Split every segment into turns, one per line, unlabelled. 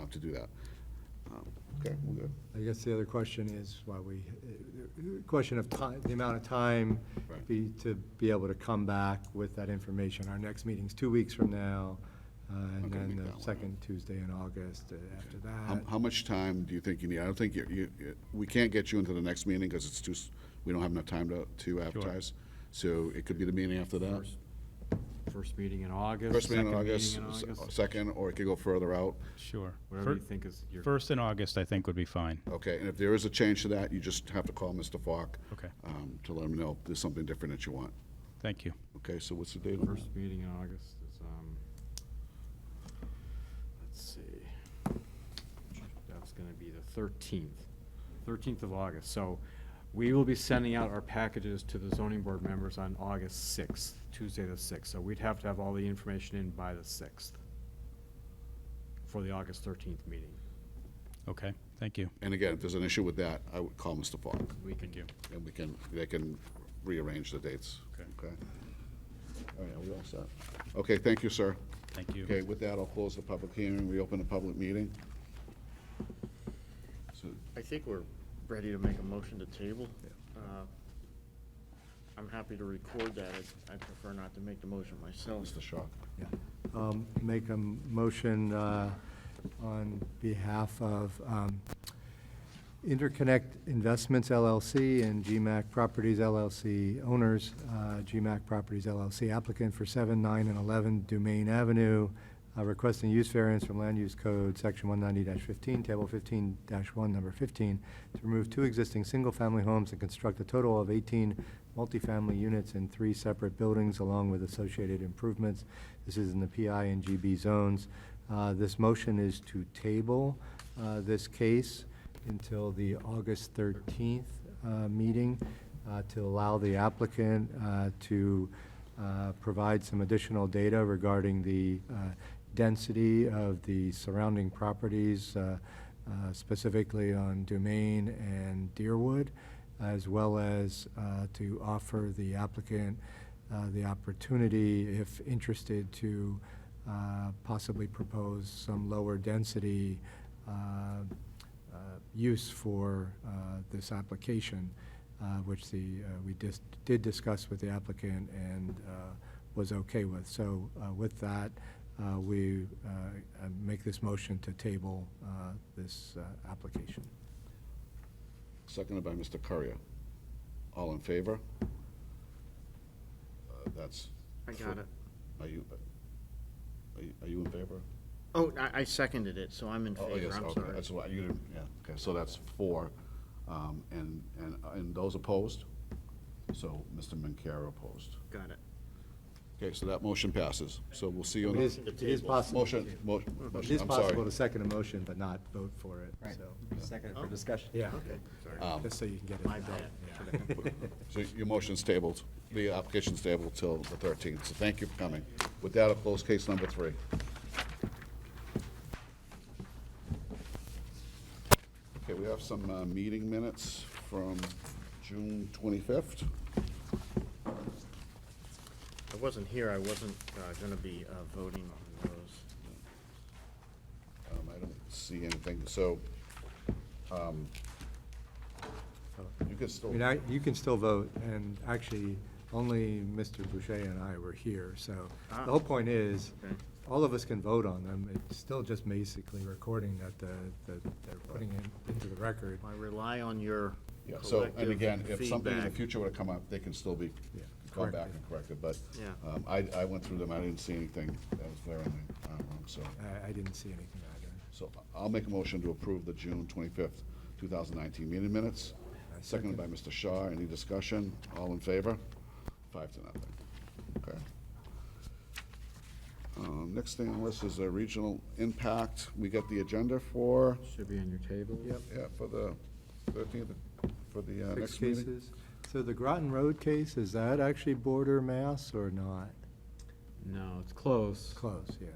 uh, to do that. Um, Okay, we're good.
I guess the other question is why we, uh, uh, question of time, the amount of time
Right.
be, to be able to come back with that information. Our next meeting's two weeks from now, uh,
Not
and
gonna
then
make that
the
one,
second Tuesday in August uh, after
How,
that.
how much time do you think you need? I don't think you, you, you- we can't get you into the next meeting because it's too, s- we don't have enough time to, to advertise. So it could be the meeting after that.
First- First meeting in August.
First meeting in
second
August,
meeting in
s-
August,
second, or it could go further out.
Sure.
Whatever you
Fir-
think is your,
First in August, I think, would be fine.
Okay, and if there is a change to that, you just have to call Mr. Falk.
Okay.
um, To let him know if there's something different that you want.
Thank you.
Okay, so what's the date? on
first meeting in August is, um, let's see. That's gonna be the thirteenth, thirteenth of August. So we will be sending out our packages to the zoning board members on August sixth, Tuesday the sixth. So we'd have to have all the information in by the sixth for the August thirteenth meeting.
Okay, thank you.
And again, if there's an issue with that, I would call Mr. Falk,
We can
Thank you.
and we can, they can rearrange the dates.
Okay.
Okay? All right, are we all set? Okay, thank you, sir.
Thank you.
Okay, with that, I'll close the public hearing, reopen the public meeting. So,
I think we're ready to make a motion to table. Uh, I'm happy to record that. I I prefer not to make the motion myself.
Mr. Shaw.
Yeah. Um, Make a motion uh, on behalf of um, Interconnect Investments LLC and GMAC Properties LLC owners, uh, GMAC Properties LLC applicant for 7, 9, and 11 Dumaine Avenue, uh, requesting use variance from Land Use Code, Section 190-15, Table 15-1, Number 15, to remove two existing single-family homes and construct a total of 18 multifamily units in three separate buildings along with associated improvements. This is in the PI and GB zones. Uh, This motion is to table uh, this case until the August 13th uh, meeting uh, to allow the applicant uh, to uh, provide some additional data regarding the uh, density of the surrounding properties, uh, uh, specifically on Dumaine and Deerwood, as well as uh, to offer the applicant uh, the opportunity, if interested, to uh, possibly propose some lower density uh, uh, use for uh, this application, uh, which the, uh, we dis- did discuss with the applicant and uh, was okay with. So uh, with that, uh, we uh, uh, make this motion to table uh, this uh, application.
Seconded by Mr. Courier. All in favor? Uh, That's.
I got it.
Are you, are you- are you in favor?
Oh, I, I seconded it, so I'm in
Oh,
favor.
yes,
I'm
okay,
sorry.
That's why, you didn't, yeah, okay, so that's four. Um, And, and, and those opposed? So Mr. Mancara opposed.
Got it.
Okay, so that motion passes. So we'll see you on
It
the.
is, it is possible, it
Motion, mo- motion,
is
I'm
possible
sorry.
to second a motion but not vote for it, so.
Second for discussion.
Yeah,
Um,
just so you can get it.
My
out.
bad.
Yeah.
So your motion's tabled, the application's tabled till the 13th, so thank you for coming. With that, I'll close case number three. Okay, we have some uh, meeting minutes from June 25th.
I wasn't here. I wasn't uh, gonna be uh, voting on those.
Um, I don't see anything, so um, you can
I
still,
mean, I, you can still vote, and actually, only Mr. Boucher and I were here, so the whole point is,
Okay.
all of us can vote on them, it's still just basically recording that the, that they're putting it into the record.
I rely on your
yeah, so, and again,
collective
if something in the
feedback.
future were to come up, they can still be,
Yeah,
come back
corrected.
and corrected, but
Yeah.
um, I, I went through them, I didn't see anything that was glaringly uh, wrong, so.
I, I didn't see anything either.
So I'll make a motion to approve the June 25th, 2019 meeting minutes,
I
seconded
second.
by Mr. Shaw. Any discussion? All in favor? Five to nothing. Okay. Um, Next thing on the list is the regional impact. We got the agenda for,
Should be on your table.
Yep.
yeah, for the 13th, for the uh,
Six
next meeting.
cases. So the Groton Road case, is that actually border Mass or not?
No, it's close,
Close, yeah,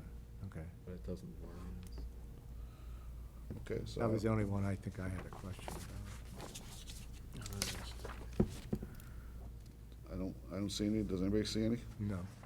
okay.
but it doesn't work.
Okay, so.
That was the only one I think I had a question about.
Uh,
I don't, I don't see any. Does anybody see any?
No.
Uh,